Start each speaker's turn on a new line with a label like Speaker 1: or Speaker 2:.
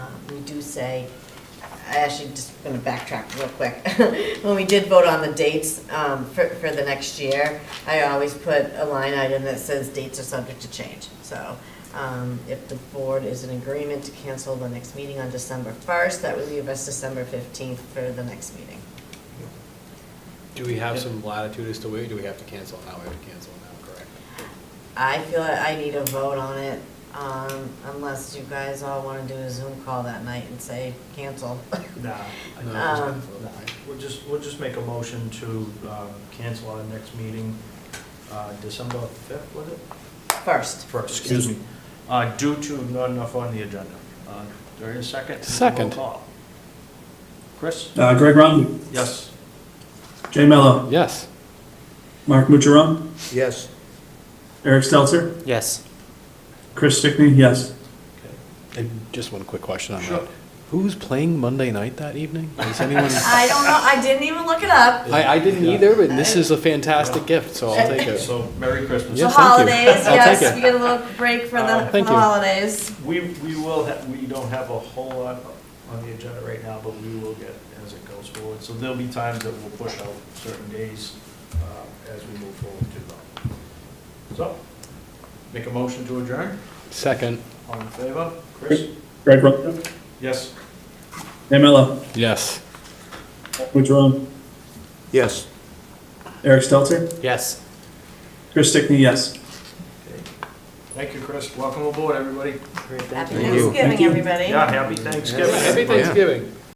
Speaker 1: we do say, I actually just gonna backtrack real quick. When we did vote on the dates, um, for, for the next year, I always put a line item that says dates are subject to change. So, um, if the board is in agreement to cancel the next meeting on December first, that would leave us December fifteenth for the next meeting.
Speaker 2: Do we have some latitude as to wait, do we have to cancel now, we have to cancel now, correct?
Speaker 1: I feel that I need a vote on it, um, unless you guys all wanna do a Zoom call that night and say cancel.
Speaker 3: Nah,
Speaker 2: No, it's
Speaker 1: Um,
Speaker 2: not for-
Speaker 3: nah, we'll just, we'll just make a motion to um, cancel our next meeting, uh, December 5th, was it?
Speaker 1: First,
Speaker 3: First, excuse me, Uh, due to not enough on the agenda. Uh, Do I hear a second?
Speaker 2: Second.
Speaker 3: Roll call. Chris?
Speaker 4: Uh, Greg Rondo,
Speaker 3: Yes.
Speaker 4: Jay Mello,
Speaker 2: Yes.
Speaker 4: Mark Mutjaron,
Speaker 5: Yes.
Speaker 4: Eric Stelter,
Speaker 6: Yes.
Speaker 4: Chris Stickney, yes.
Speaker 2: And just one quick question on
Speaker 3: Sure.
Speaker 2: that. Who's playing Monday night that evening? Is anyone?
Speaker 1: I don't know, I didn't even look it up.
Speaker 2: I, I didn't either, but this is a fantastic gift, so I'll take it.
Speaker 3: So Merry Christmas.
Speaker 1: The
Speaker 2: Yeah, thank you.
Speaker 1: holidays,
Speaker 2: I'll take
Speaker 1: yes,
Speaker 2: it.
Speaker 1: we get a little break for the,
Speaker 3: Uh,
Speaker 1: for the
Speaker 2: thank you.
Speaker 1: holidays.
Speaker 3: We, we will, ha- we don't have a whole lot on the agenda right now, but we will get as it goes forward. So there'll be times that we'll push out certain days uh, as we move forward to them. So, make a motion to adjourn.
Speaker 2: Second,
Speaker 3: All in favor? Chris?
Speaker 4: Greg Rondo,
Speaker 3: Yes.
Speaker 4: Jay Mello,
Speaker 2: yes.
Speaker 4: Mark Mutjaron,
Speaker 5: Yes.
Speaker 4: Eric Stelter,
Speaker 6: Yes.
Speaker 4: Chris Stickney, yes.
Speaker 3: Okay. Thank you, Chris. Welcome aboard, everybody.
Speaker 1: Happy
Speaker 2: Thank you.
Speaker 1: Thanksgiving, everybody.
Speaker 3: Yeah, happy Thanksgiving.
Speaker 2: Happy Thanksgiving.